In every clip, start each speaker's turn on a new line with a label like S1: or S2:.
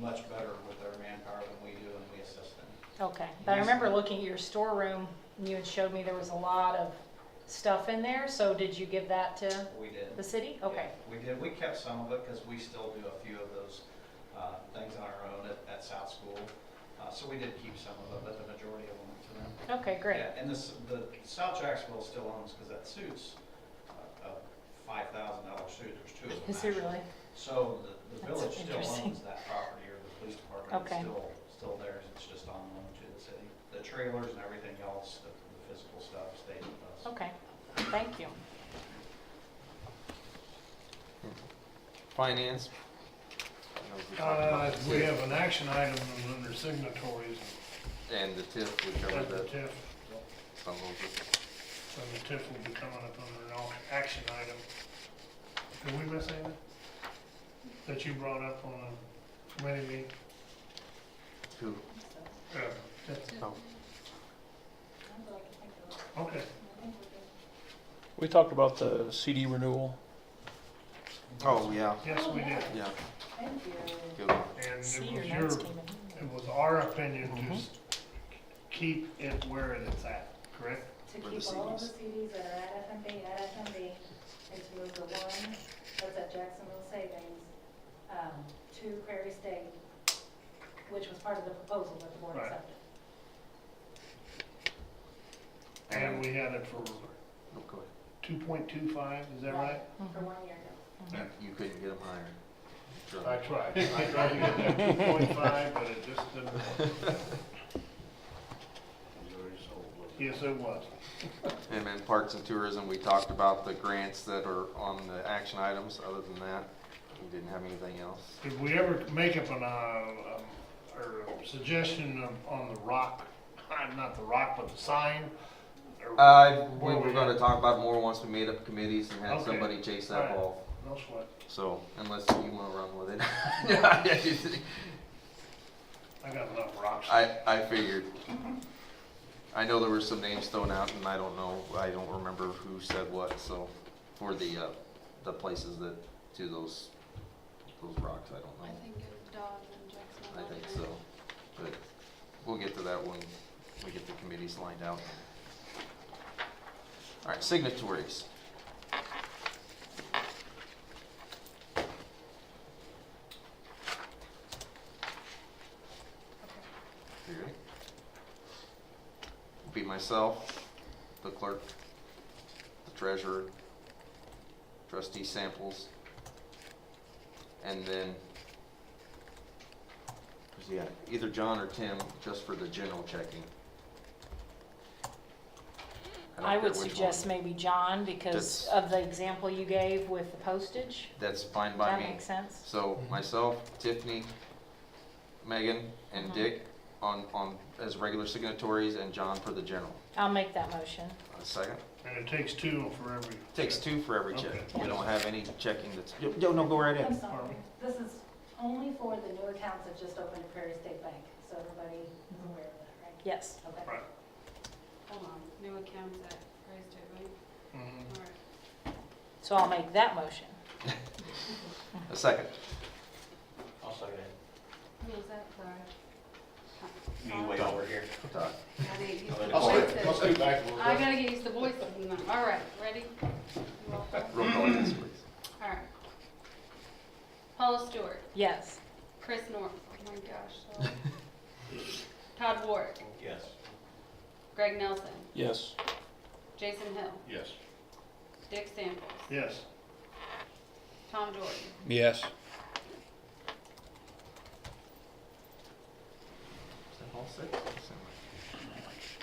S1: much better with their manpower than we do and we assist them.
S2: Okay, but I remember looking at your storeroom, and you had showed me there was a lot of stuff in there, so did you give that to
S1: We did.
S2: the city? Okay,
S1: Yeah, We did, we kept some of it because we still do a few of those uh, things on our own at, at South School. Uh, So we did keep some of it, but the majority of them went to them.
S2: okay, great.
S1: Yeah, And this, the South Jacksonville still owns, because that suits, uh, a five thousand dollar suit, there's two of them.
S2: Is it
S1: actually.
S2: really?
S1: So the, the
S2: That's
S1: village still
S2: interesting.
S1: owns that property, or the police department is
S2: Okay.
S1: still, still theirs, it's just on loan to the city. The trailers and everything else, the the physical stuff stays with us.
S2: Okay, thank you.
S3: Finance.
S4: Uh, we have an action item under signatories
S3: And the TIF, we
S4: at
S3: covered
S4: the
S3: that.
S4: TIF,
S3: So we'll just-
S4: and the TIF will be coming up under an au- action item. Did we miss anything that you brought up on a committee meeting?
S3: who-
S4: Uh, that-
S3: oh,
S4: Okay,
S5: We talked about the CD renewal.
S3: Oh, yeah,
S4: yes, we did.
S3: yeah. Good one.
S4: And
S2: See,
S4: it
S2: your
S4: was
S2: notes
S4: your,
S2: came in.
S4: it was our opinion to s- keep it where it's at, correct?
S6: To
S3: For the
S6: keep all of the
S3: CDs.
S6: CDs that are at FMB, at FMB, and to move the one that's at Jacksonville Savings um, to Prairie State, which was part of the proposal that the board
S4: Right.
S6: accepted.
S4: And we had it for
S3: Oh, go ahead.
S4: two point two five, is that right?
S2: Mm-hmm.
S6: For one year ago.
S3: You you couldn't get them higher. Sure.
S4: I tried, I tried to get that two point five, but it just didn't work. Yes, it was.
S3: And then Parks and Tourism, we talked about the grants that are on the action items. Other than that, we didn't have anything else.
S4: Did we ever make up an, uh, um, or a suggestion of- on the rock, not the rock, but the sign? Or-
S3: Uh, we
S4: where
S3: were
S4: we
S3: gonna
S4: at?
S3: talk about more once we made up committees and had
S4: Okay.
S3: somebody chase that
S4: Alright.
S3: ball.
S4: No sweat.
S3: So unless you wanna run with it. Yeah, yeah, you-
S4: I got enough rocks.
S3: I, I figured. I know there were some names thrown out, and I don't know, I don't remember who said what, so, for the, uh, the places that do those, those rocks, I don't
S7: I
S3: know.
S7: think it was Dodge and Jackson.
S3: I think so, but we'll get to that when we get the committees lined out. All right, signatories. You ready? Be myself, the clerk, the treasurer, trustee samples, and then yeah, either John or Tim, just for the general checking. don't
S2: I
S3: care
S2: would
S3: which one.
S2: suggest maybe John, because
S3: That's-
S2: of the example you gave with the postage.
S3: That's fine
S2: Does
S3: by
S2: that
S3: me.
S2: make sense?
S3: So myself, Tiffany, Megan, and
S2: Mhm.
S3: Dick on, on, as regular signatories, and John for the general.
S2: I'll make that motion.
S3: A second.
S4: And it takes two for every.
S3: Takes two for every check.
S4: Okay.
S3: We don't have any checking that's, yo, yo, Oh, no, go right
S6: I'm
S3: in.
S6: sorry, this is only for the new accounts that just opened at Prairie State Bank, so everybody is aware of that, right?
S2: Yes.
S6: Okay.
S4: Right.
S7: Hold on, new accounts at Prairie State, right?
S4: Mhm.
S7: All right.
S2: So I'll make that motion.
S3: A second.
S1: I'll second
S7: Who was that for?
S1: You wait over here.
S3: Todd.
S7: I gotta get used to the
S1: I'll
S7: voices.
S4: back
S7: I gotta get used to voices and that. All right, ready? Roll call.
S3: Roll call, yes, please.
S7: All right. Paula Stewart,
S2: Yes.
S7: Chris North, oh my gosh. sorry. Todd Ward,
S1: Yes.
S7: Greg Nelson,
S5: Yes.
S7: Jason Hill,
S4: Yes.
S7: Dick Samples,
S4: Yes.
S7: Tom Jordan.
S5: Yes.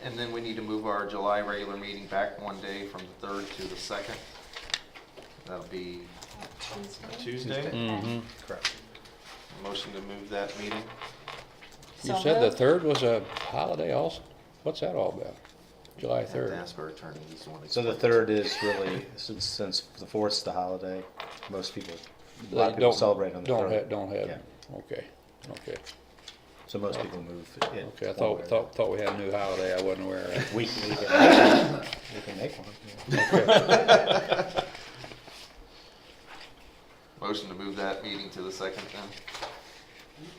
S3: And then we need to move our July regular meeting back one day from the third to the second. That'll be Tuesday.
S5: Mm-hmm.
S3: Correct. Motion to move that meeting.
S2: So
S5: You said the
S2: moved.
S5: third was a holiday also? What's that all about? July
S3: I have to
S5: third?
S3: ask our attorney, he's the one that.
S8: So the
S3: explains
S8: third is really, since, since the fourth's the holiday, most people, a
S5: They
S8: lot of people
S5: don't-
S8: celebrate on the
S5: Don't have,
S8: third.
S5: don't have, okay, okay,
S8: So most people move it.
S5: okay. I
S8: one way
S5: thought,
S8: or
S5: thought, thought we had a new holiday. I wasn't aware of.
S8: another. We can, we can, we can make one. yeah.
S3: it. Motion to move that meeting to the second then.